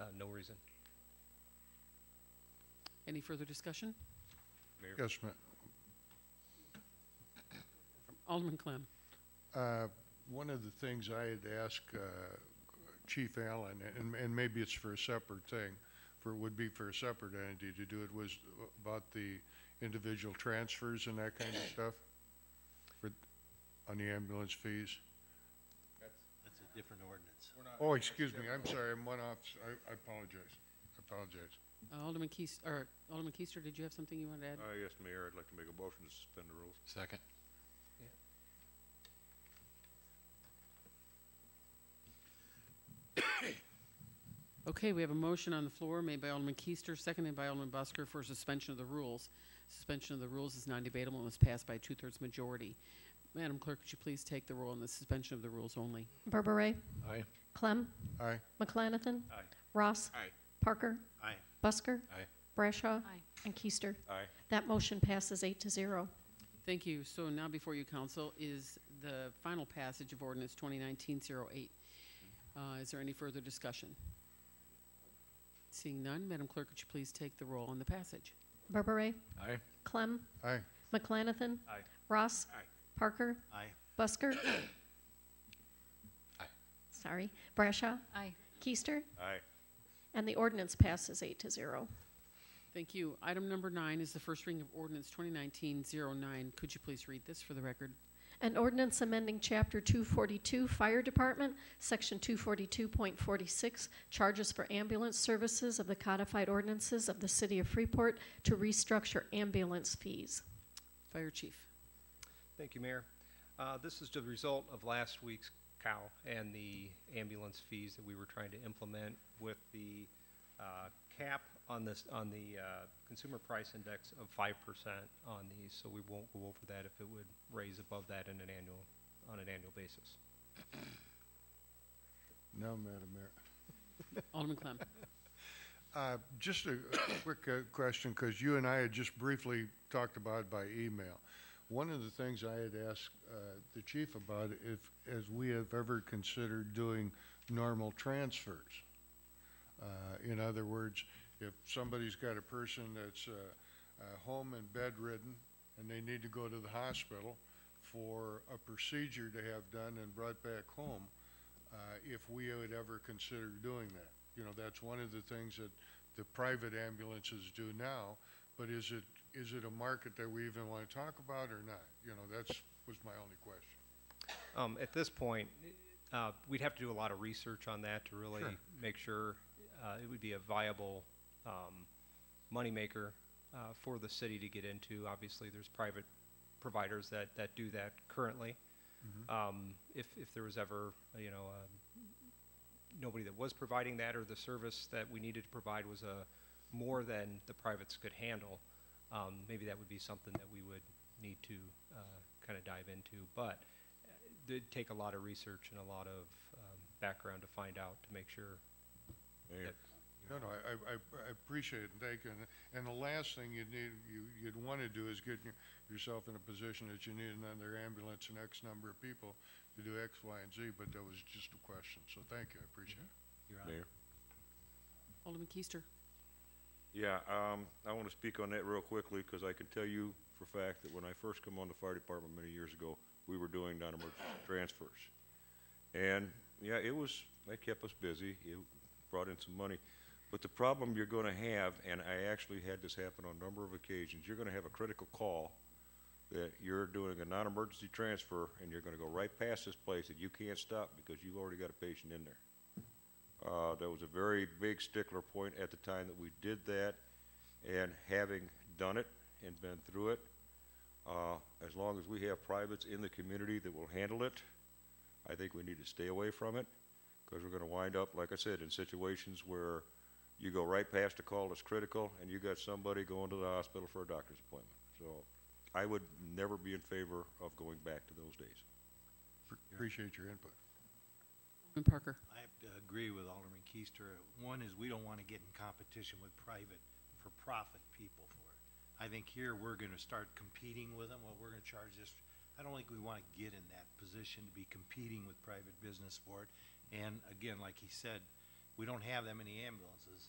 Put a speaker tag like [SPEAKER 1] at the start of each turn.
[SPEAKER 1] Uh, reason.
[SPEAKER 2] Any further discussion?
[SPEAKER 3] Yes, ma'am.
[SPEAKER 2] Alderman Clem.
[SPEAKER 3] Uh, One of the things I had asked uh, Chief Allen, and, and maybe it's for a separate thing, for, would be for a separate entity to do it, was about the individual transfers and that kind of stuff? For, on the ambulance fees?
[SPEAKER 1] That's a different ordinance.
[SPEAKER 3] Oh, excuse me, I'm sorry, I'm one off, I, I apologize, I apologize.
[SPEAKER 2] Uh, Alderman Keister, or Alderman Keister, did you have something you wanted to add?
[SPEAKER 4] Uh, yes, Mayor, I'd like to make a motion to suspend the rules.
[SPEAKER 5] Second.
[SPEAKER 2] Okay, we have a motion on the floor made by Alderman Keister, seconded by Alderman Busker for suspension of the rules. Suspension of the rules is non-debatable and must pass by a two-thirds majority. Madam Clerk, could you please take the roll on the suspension of the rules only?
[SPEAKER 6] Berberay.
[SPEAKER 5] Aye.
[SPEAKER 6] Clem.
[SPEAKER 3] Aye,
[SPEAKER 6] McLanathan.
[SPEAKER 1] Aye.
[SPEAKER 6] Ross.
[SPEAKER 5] Aye.
[SPEAKER 6] Parker.
[SPEAKER 1] Aye.
[SPEAKER 6] Busker.
[SPEAKER 5] Aye.
[SPEAKER 6] Brashaw. And Keister.
[SPEAKER 4] Aye.
[SPEAKER 6] That motion passes eight to zero.
[SPEAKER 2] Thank you. So now before you, council, is the final passage of ordinance 2019-08. Uh, Is there any further discussion? Seeing none, Madam Clerk, could you please take the roll on the passage?
[SPEAKER 6] Berberay.
[SPEAKER 5] Aye.
[SPEAKER 6] Clem.
[SPEAKER 3] aye,
[SPEAKER 6] McLanathan.
[SPEAKER 1] Aye.
[SPEAKER 6] Ross.
[SPEAKER 1] Aye.
[SPEAKER 6] Parker.
[SPEAKER 1] Aye.
[SPEAKER 6] Busker.
[SPEAKER 5] Aye.
[SPEAKER 6] Sorry. Brashaw.
[SPEAKER 7] Aye.
[SPEAKER 6] Keister.
[SPEAKER 4] Aye.
[SPEAKER 6] And the ordinance passes eight to zero.
[SPEAKER 2] Thank you. Item number nine is the first reading of ordinance 2019-09. Could you please read this for the record?
[SPEAKER 6] An ordinance amending Chapter 242 Fire Department, Section 242.46, charges for ambulance services of the codified ordinances of the City of Freeport to restructure ambulance fees.
[SPEAKER 2] Fire Chief.
[SPEAKER 1] Thank you, Mayor. Uh, This is the result of last week's cow and the ambulance fees that we were trying to implement with the uh, cap on this, on the uh, consumer price index of 5% on these, so we won't go over that if it would raise above that in an annual, on an annual basis.
[SPEAKER 3] no, Madam Mayor.
[SPEAKER 2] Alderman Clem.
[SPEAKER 3] Uh, Just a quick uh, question, because you and I had just briefly talked about it by email. One of the things I had asked uh, the chief about, if, as we have ever considered doing normal transfers. Uh, In other words, if somebody's got a person that's uh, uh, home and bedridden, and they need to go to the hospital for a procedure to have done and brought back home, uh, if we would ever consider doing that. You know, that's one of the things that the private ambulances do now, but is it, is it a market that we even want to talk about or not? You know, that's, was my only question.
[SPEAKER 1] Um, At this point, uh, we'd have to do a lot of research on that to really make sure uh, it would be a viable um, moneymaker uh, for the city to get into. Obviously, there's private providers that, that do that currently. Um, If, if there was ever, you know, um, nobody that was providing that or the service that we needed to provide was a, more than the privates could handle, um, maybe that would be something that we would need to kind of dive into. But uh, it'd take a lot of research and a lot of um, background to find out to make sure.
[SPEAKER 4] Mayor,
[SPEAKER 3] No, no, I, I- I, I appreciate it, thank you. And- And the last thing you'd need, you, you'd want to do is get your- yourself in a position that you need another ambulance and X number of people to do X, Y, and Z, but that was just a question, so thank you, I appreciate it.
[SPEAKER 4] Mayor.
[SPEAKER 2] Alderman Keister.
[SPEAKER 4] Yeah, um, I want to speak on that real quickly because I can tell you for a fact that when I first come on the fire department many years ago, we were doing non-emergency transfers. And, yeah, it was, that kept us busy. It brought in some money. But the problem you're going to have, and I actually had this happen on a number of occasions, you're going to have a critical call that you're doing a non-emergency transfer and you're going to go right past this place that you can't stop because you've already got a patient in there. Uh, that was a very big stickler point at the time that we did that, and having done it and been through it, uh, as long as we have privates in the community that will handle it, I think we need to stay away from it, because we're gonna wind up, like I said, in situations where you go right past a call that's critical, and you got somebody going to the hospital for a doctor's appointment. So, I would never be in favor of going back to those days.
[SPEAKER 3] Appreciate your input.
[SPEAKER 2] Alderman Parker.
[SPEAKER 8] I have to agree with Alderman Keister. One is we don't want to get in competition with private, for-profit people for it. I think here, we're going to start competing with them, what we're going to charge this. I don't think we want to get in that position to be competing with private business for it. And again, like he said, we don't have that many ambulances.